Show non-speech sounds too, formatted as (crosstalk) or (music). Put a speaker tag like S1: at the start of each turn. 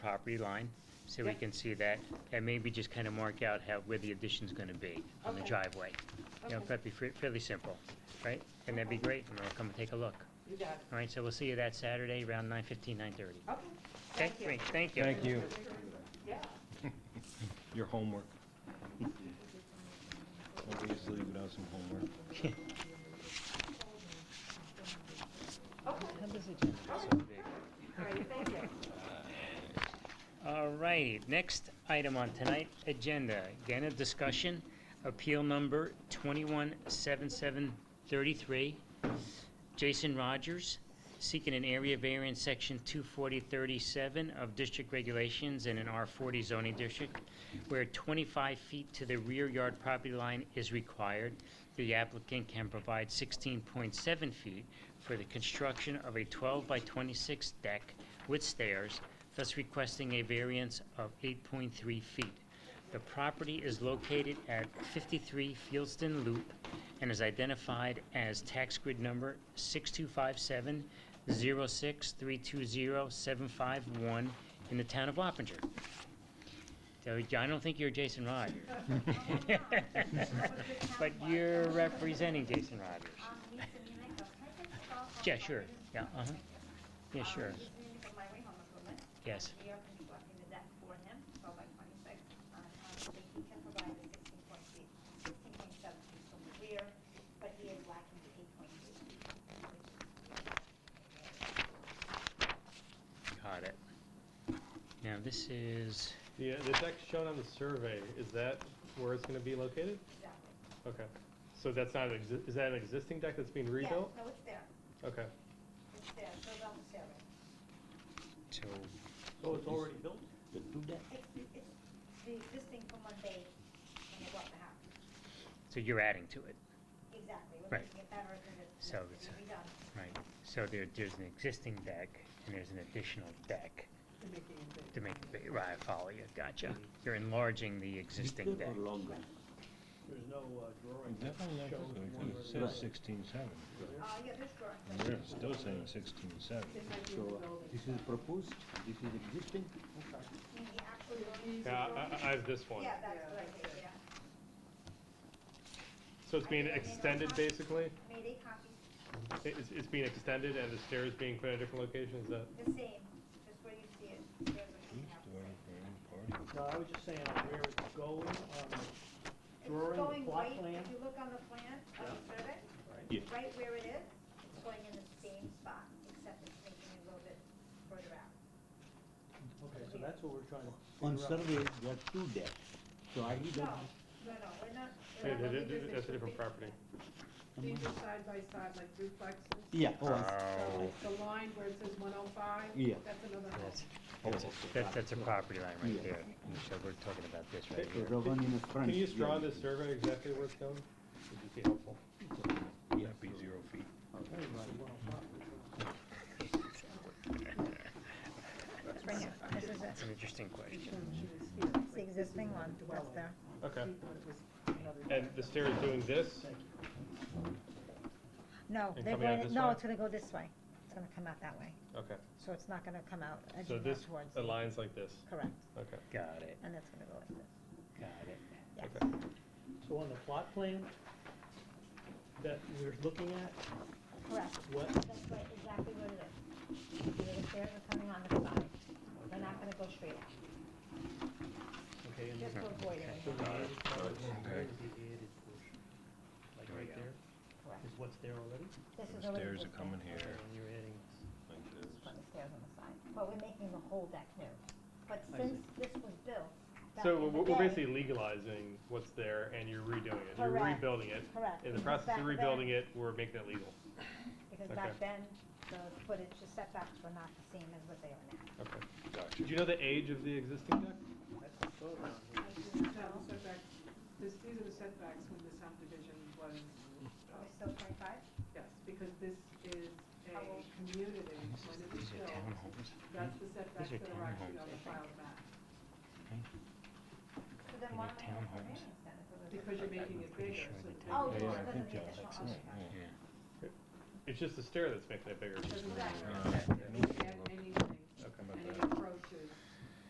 S1: property line, so we
S2: Yep.
S1: can see that, and maybe just kind of mark out how, where the addition's gonna be on the
S2: Okay.
S1: driveway. You know,
S2: Okay.
S1: that'd be fa- fairly simple, right? And that'd be great, and I'll come and take a look.
S2: You got it.
S1: All right, so we'll see you that Saturday, around nine fifteen, nine thirty.
S2: Okay.
S1: Okay,
S2: Oh, Thank you.
S1: great, thank you.
S3: Thank you.
S2: Yeah.
S3: Your homework. Obviously, without some homework.
S2: Okay. All right, thank you.
S1: All right, next item on tonight's agenda, again, a discussion, appeal number 217733. Jason Rogers, seeking an area variance, section 24037 of district regulations in an R40 zoning district, where 25 feet to the rear yard property line is required. The applicant can provide 16.7 feet for the construction of a 12 by 26 deck with stairs, thus requesting a variance of 8.3 feet. The property is located at 53 Fieldston Loop and is identified as tax grid number 6257-06320-751 in the town of Wappinger. So I don't think you're Jason Rogers. (laughs) But you're representing Jason Rogers. Yeah, sure. Yeah, uh-huh. Yeah, sure.
S4: He's in the library home improvement.
S1: Yes.
S4: We are going to be walking the deck for him, twelve by twenty-six. uh, um, He can provide the sixteen point feet, sixteen point seven feet from the rear, but he is lacking the eight point three feet.
S1: Got it. Now, this is,
S5: The, uh, the deck shown on the survey, is that where it's gonna be located?
S4: Exactly.
S5: Okay, so that's not, an exi- is that an existing deck that's being
S4: Yeah,
S5: rebuilt?
S4: No, it's there.
S5: Okay.
S4: It's there. It goes on the survey.
S1: so,
S5: So it's already built?
S4: It's, it's the existing from when they, when they bought the house.
S1: so you're adding to it,
S4: Exactly. We're
S1: Right.
S4: making it better than it
S1: So
S4: needs
S1: it's
S4: to
S1: a-
S4: be redone.
S1: right? So there, there's an existing deck, and there's an additional deck. To make it big, right, I follow you, gotcha. You're enlarging the existing deck.
S6: There's no uh, drawing that
S3: Definitely
S6: shows one
S3: not,
S6: where
S3: it
S6: the-
S3: says sixteen seven.
S4: Uh, yeah, there's drawings.
S3: And they're still saying sixteen seven.
S7: So this is proposed, this is existing.
S4: In the actual drawings.
S5: Yeah, I- I, I have this one.
S4: Yeah, that's what I did, yeah.
S5: So it's being extended, basically?
S4: Made eight copies,
S5: I- It's, it's being extended and the stairs being put at a different location, is that?
S4: the same, just where you see it. there's what you have.
S6: No, I was just saying on where it's going um, on the
S4: It's
S6: drawing,
S4: going
S6: the plot
S4: right-
S6: plan.
S4: If you look on the plan, on the survey, right where it is, it's going in the same spot, except it's taking it a little bit further out.
S6: Okay, so that's what we're trying to.
S7: On
S6: figure out.
S7: survey, there are two decks. So I need
S4: No,
S7: that.
S4: no, no, we're not,
S5: Hey,
S4: we're not.
S5: th-
S4: looking-
S5: th- th- That's a different property.
S2: These are side by side, like duplexes.
S7: Yeah, oh, I-
S2: So
S1: Oh,
S2: like the line where it says one oh five,
S7: Yeah.
S2: that's another house.
S1: that's, that's, that's a property line right there. So we're talking about this right
S7: so
S1: here.
S7: the one in the front.
S5: Can you just draw on
S7: yeah.
S5: this survey exactly where it's going? Would just be helpful.
S3: That'd be zero feet.
S1: That's an interesting question.
S4: It's the existing one, that's there.
S5: Okay. And the stair is doing this?
S8: No,
S5: And
S8: they're
S5: coming out
S8: going,
S5: this
S8: no,
S5: way?
S8: it's gonna go this way. It's gonna come out that way.
S5: Okay,
S8: So it's not gonna come out
S5: so
S4: uh,
S8: edging
S5: this
S8: out towards,
S5: aligns like this,
S8: correct.
S5: okay,
S1: Got it,
S8: And it's gonna go like this.
S1: got it.
S5: okay.
S6: So on the plot plan that we're looking at,
S4: Correct,
S6: what,
S4: that's what, exactly what it is. Where The stairs are coming on the side, they're not gonna go straight out,
S5: Mm-hmm.
S6: okay, and
S4: just to avoid it.
S6: so the added part is where the added portion, like right there, is what's there already?
S4: This is already
S3: Stairs are
S4: existing.
S3: coming here,
S6: And you're adding
S3: like this.
S4: on the stairs on the side, but we're making the whole deck new. But since this was built back
S5: So
S4: in
S5: we're-
S4: the
S5: we're
S4: day-
S5: basically legalizing what's there and you're redoing it, you're
S4: Correct.
S5: rebuilding it.
S4: Correct.
S5: In the process of
S4: Back then-
S5: rebuilding it, we're making it legal.
S4: Because
S5: okay.
S4: back then, the footage, the setbacks were not the same as what they are now.
S5: Okay. Do you know the age of the existing deck?
S6: That's the photo on here.
S2: No, the setback, this, these are the setbacks when the subdivision was, uh,
S4: We're still twenty-five?
S2: yes, because this is a
S4: How old?
S2: community when it was
S1: These are
S2: built.
S1: townhomes.
S2: That's the setbacks
S1: These are
S2: that are actually
S1: townhomes,
S2: on the
S1: I
S2: file map,
S4: So then
S1: They're
S4: why am I having
S1: townhomes.
S4: variance then? if it was a-
S2: because you're making it
S1: pretty
S2: bigger,
S1: sure
S2: so
S1: they
S2: the
S1: did.
S2: bigger
S4: Oh,
S2: part-
S4: yeah,
S3: I
S4: it
S3: think
S4: doesn't need
S3: that's
S4: additional
S3: it,
S4: occupancy.
S3: yeah.
S5: It's just the stair that's making it bigger.
S2: Doesn't
S4: Correct.
S2: matter.
S3: Uh,
S2: You can add anything,
S5: Okay.
S3: How about
S2: anything
S3: that?